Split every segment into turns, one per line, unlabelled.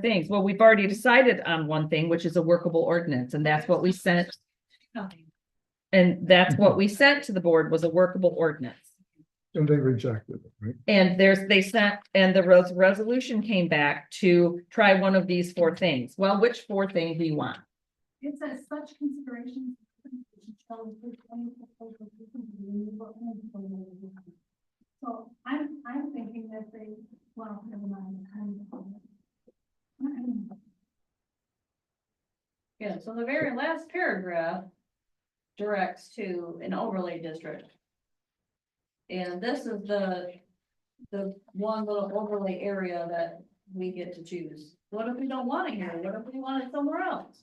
things. Well, we've already decided on one thing, which is a workable ordinance, and that's what we sent. And that's what we sent to the board was a workable ordinance.
And they rejected it, right?
And there's, they sent, and the res- resolution came back to try one of these four things. Well, which four things do you want?
It says such considerations. So I'm, I'm thinking that they, well, never mind. I'm-
Yeah, so the very last paragraph directs to an overlay district. And this is the, the one little overlay area that we get to choose. What if we don't want it here? What if we want it somewhere else?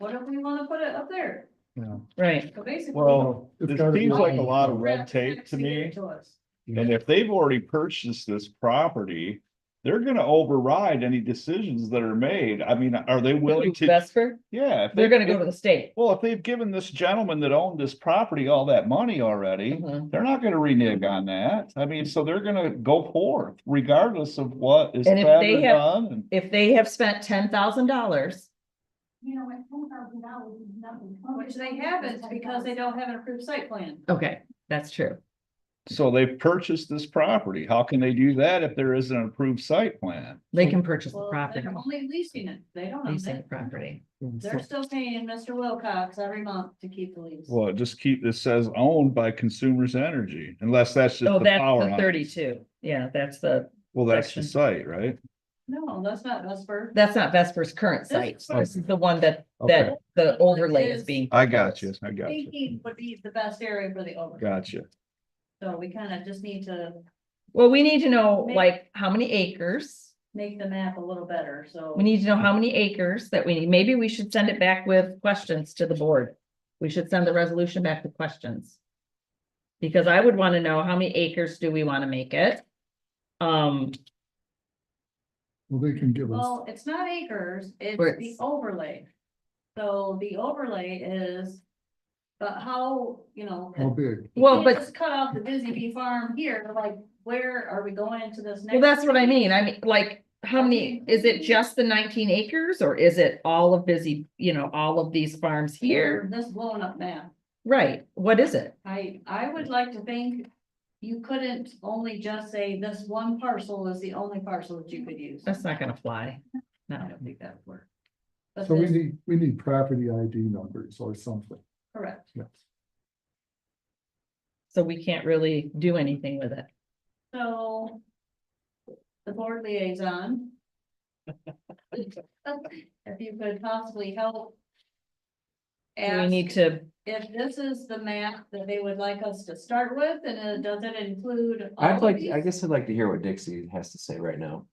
What if we wanna put it up there?
Yeah.
Right,
So basically.
Well,
It's
it
gotta be
seems like a
like-
lot of red
Rep-
tape to
repeated
me,
to us.
and if they've already purchased this property. They're gonna override any decisions that are made. I mean, are they willing to,
Vesper,
yeah. if
they're
they-
gonna go to the state.
Well, if they've given this gentleman that owned this property all that money already,
Mhm.
they're not gonna renege on that. I mean, so they're gonna go forth regardless of what is
And if
said
they
or
have-
done. and-
If they have spent ten thousand dollars,
You know, at ten thousand dollars is nothing.
Which they haven't because they don't have an approved site plan.
okay, that's true.
So they've purchased this property. How can they do that if there isn't an approved site plan?
They can purchase the
Well,
property,
they're only leasing it. They don't own
leasing the
it.
property.
They're still paying Mr. Wilcox every month to keep the lease.
Well, just keep, this says owned by Consumers Energy, unless that's just
Oh,
the
that's
power.
the
line.
thirty-two. Yeah, that's the,
Well, that's
section.
the site, right?
No, that's not Vesper.
that's not Vesper's current
This
site.
is-
This is the one that,
Okay.
that the overlay is being.
I got
proposed.
you, I got you,
Thinking would be the best area for the over,
got you.
so we kind of just need to
Well, we need to know
Maybe-
like how many acres.
make the map a little better, so.
We need to know how many acres that we need. Maybe we should send it back with questions to the board. We should send the resolution back with questions. Because I would want to know how many acres do we want to make it? Um,
Well, they can give us,
Well, it's not acres, it's
Or
the
it's-
overlay. So the overlay is, but how, you know.
how big?
you
Well,
can't
but-
just Cut off the Busy Bee Farm here, like, where are we going into this next?
well, that's what I mean. I mean, like, how many, is it just the nineteen acres or is it all of busy, you know, all of these farms here?
This blown up map.
Right, what is it?
I, I would like to think you couldn't only just say this one parcel is the only parcel that you could use.
That's not gonna fly.
I
No,
don't think that would work. But
So we
this-
need, we need property ID numbers or something,
correct.
yes.
so we can't really do anything with it.
So the board liaison. If you could possibly help.
Do We
ask
need to,
if this is the map that they would like us to start with, and uh, it doesn't include. all
I'd
of
like,
these?
I guess I'd like to hear what Dixie has to say right now.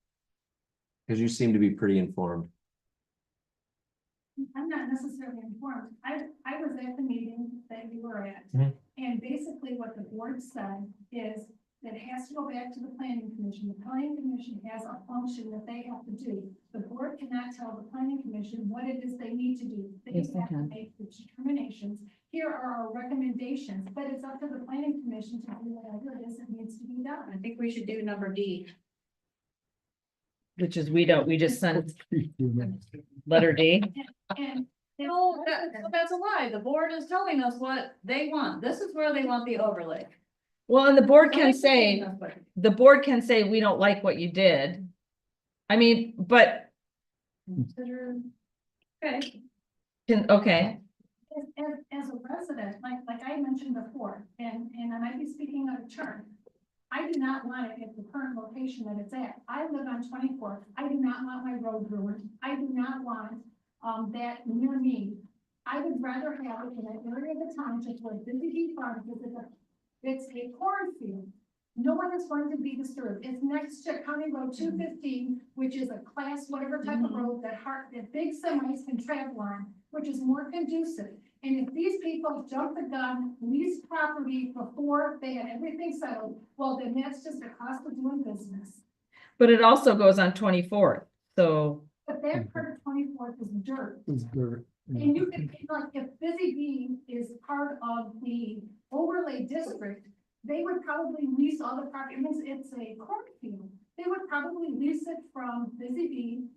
Cause you seem to be pretty informed.
I'm not necessarily informed. I, I was at the meeting that you were at.
Mhm.
And basically what the board said is that it has to go back to the planning commission. The planning commission has a function that they have to do. The board cannot tell the planning commission what it is they need to do. They
Yes, they
have to
can.
make the determinations. Here are our recommendations, but it's up to the planning commission to do whatever it is that needs to be done.
I think we should do number D.
which is we don't, we just send
Well,
letter D.
And.
Oh,
No, that- that's a lie. The board is telling us what they want. This is where they want the overlay.
Well, and the board can
Somebody's
say,
telling us what-
the board can say, we don't like what you did. I mean, but,
Consider. Okay.
can- okay,
As, as, as a resident, like, like I mentioned before, and, and I might be speaking out of turn. I do not want it at the current location that it's at. I live on twenty-four. I do not want my road ruined. I do not want, um, that near me. I would rather have it in an area of the township where Busy Bee Farm, because it's a, it's a cornfield. No one is going to be disturbed. It's next to County Road two fifteen, which is a class, whatever type of
Mhm.
road that hard, that big semis can travel on, which is more conducive. And if these people jump the gun, lease property before they had everything settled, well, then that's just the cost of doing business.
but it also goes on twenty-fourth, so,
But that part of twenty-fourth is dirt.
Is there?
And you can, like, if Busy Bee is part of the overlay district, they would probably lease all the property, I mean, it's a cornfield. They would probably lease it from Busy Bee